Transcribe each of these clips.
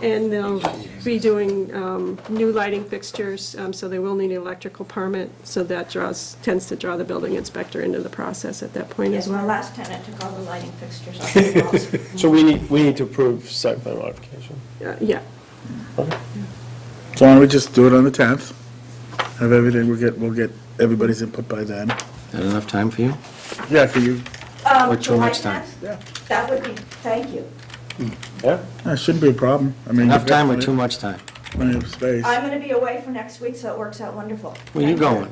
And they'll be doing um, new lighting fixtures, um, so they will need an electrical permit, so that draws, tends to draw the building inspector into the process at that point Yes, as my well. last tenant took all the lighting fixtures off the walls. So we need, we need to approve site plan modification. Uh, Yeah, Okay. So why don't we just do it on the 10th? Have everything, we'll get, we'll get everybody's input by then. That enough time for you? Yeah, for you, Um, Or till July next time. 10th? yeah, That would be, thank you. Yeah, that shouldn't be a problem. I mean, Enough you've got time or plenty- too much time? Plenty of space. I'm going to be away for next week, so it works out wonderful. Where you Thank going?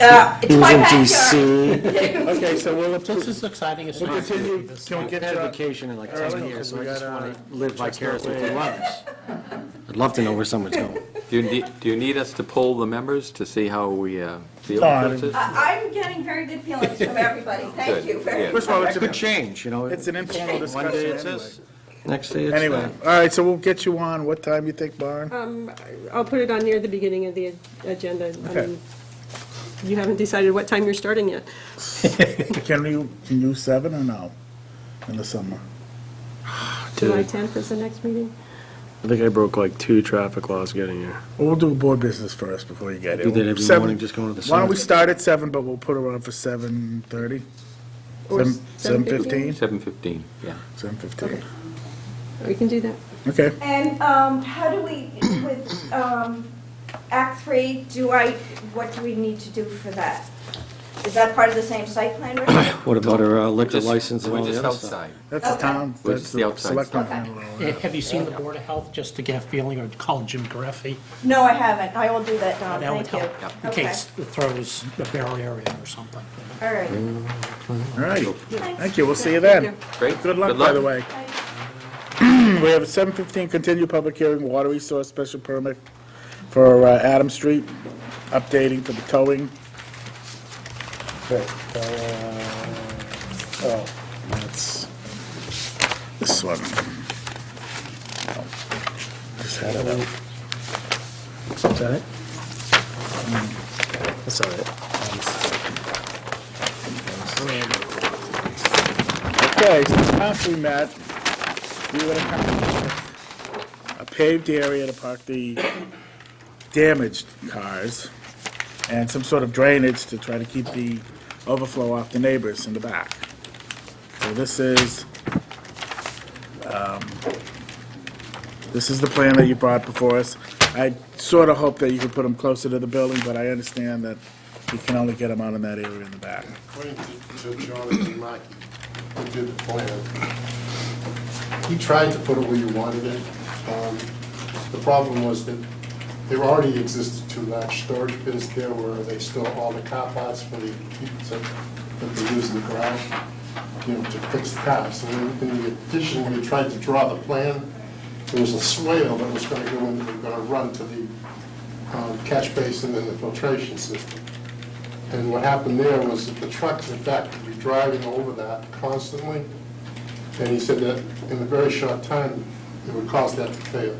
Uh, It's He was my in backyard. DC. Okay, so we'll, This is exciting as we'll possible. continue, can we I've get uh, had your, vacation in like Early, ten 'cause years, so we I just got, want uh, to live vicariously through others. I'd love to know where someone's going. Do you need, do you need us to poll the members to see how we uh, feel No, I about this? I- I'm getting very good feelings from everybody. Thank Good, you very yeah. much. first of all, it's Could an, change, you know. it's an informal One discussion day it's anyway. this, next day it's Anyway, that. all right, so we'll get you on, what time you think, Barn? Um, I'll put it on near the beginning of the agenda. I Okay. mean, You haven't decided what time you're starting yet. Can you, can you seven or no, in the summer? July 10th is the next meeting? I think I broke like two traffic laws getting here. Well, we'll do board business first before you get it. Do that every Seven- morning, just go to the Why don't we summit. start at seven, but we'll put it on for seven thirty? Or Seven fifteen? 7:15, yeah. Seven fifteen, We can do that. okay. And um, how do we, with um, Act 3, do I, what do we need to do for that? Is that part of the same site plan review? What about our uh, liquor Just- license and all the We're other just stuff? outside. That's the Okay. town, We'll that's just see the outside selectmen. stuff. handle all Eh, that. Have you seen the Board of Health, just to get a feeling, or call Jim Greffey? No, I haven't. I will do that, Don. That would Oh, Thank you. help, in Okay. case it throws a barrier in or something. All right. Mm. All right, thank you, we'll see you then. Great. Good luck, by the way. We have a seven fifteen continued public hearing, water resource special permit for uh, Adam Street, updating for the towing. Okay, uh, oh, that's this one. Just had it up. Is that it? That's all right. Okay, so last we met, we were gonna come, a paved area to park the damaged cars, and some sort of drainage to try to keep the overflow off the neighbors in the back. So this is, um, this is the plan that you brought before us. I sort of hope that you could put them closer to the building, but I understand that you can only get them out in that area in the back. According to to Charlie and Mike, who did the plan, he tried to put it where you wanted it. Um, The problem was that there already existed two large storage bins there where they store all the car parts for the, to- that they use in the garage, you know, to fix the cars. And then in addition, when he tried to draw the plan, there was a swale that was gonna go in, that was gonna run to the um, catch basin and the filtration system. And what happened there was that the trucks, in fact, would be driving over that constantly. And he said that in a very short time, it would cause that to fail.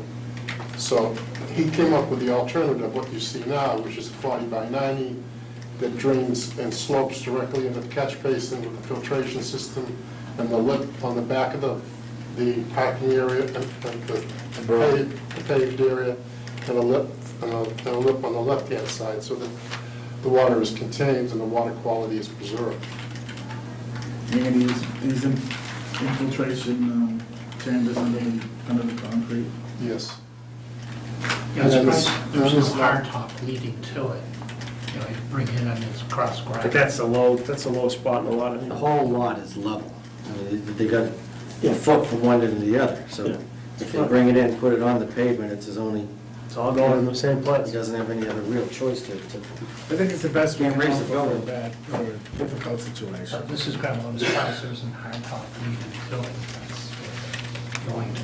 So he came up with the alternative, of what you see now, which is 40 by 90, that drains and slopes directly into the catch basin with the filtration system and the lip on the back of the, the parking area, and and the paved- paved area, and a lip, and a and a lip on the left-hand side, so that the water is contained and the water quality is preserved. You're gonna use these in- infiltration um, chambers under the, under the concrete? Yes. Yeah, it's And right, it's- there's no it's not- hardtop leading to it. You know, you bring in and it's cross But gravel. that's a low, that's a low spot in a lot The of, whole lot is level. I mean, They they got a foot from one end to the other, so if they bring it in, put it on the pavement, it's his only, it's all going in the same he place. doesn't have any other real choice to, to, I think it's the best way to Can't raise the go for a building. bad, for a difficult situation. So this is gravel and gravel, there isn't hardtop leading to it. That's where it's Going to.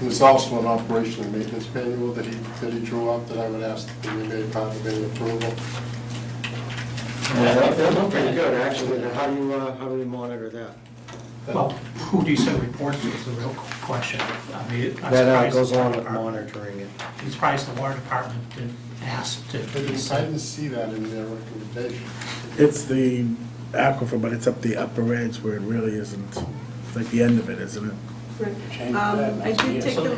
There's also an operation and maintenance manual that he, that he drew up that I would ask that we made part of any approval. they look pretty good, actually, Now, how do you, uh, how do we monitor that? Well, who do you send reports to is the real question. I mean, I'm That uh, surprised goes the along water with department- monitoring it. I'm surprised the water department didn't ask to. But I didn't see that in their recommendation. It's the aquifer, but it's up the upper edge where it really isn't, it's like the end of it, isn't it? Right. Um, I did take the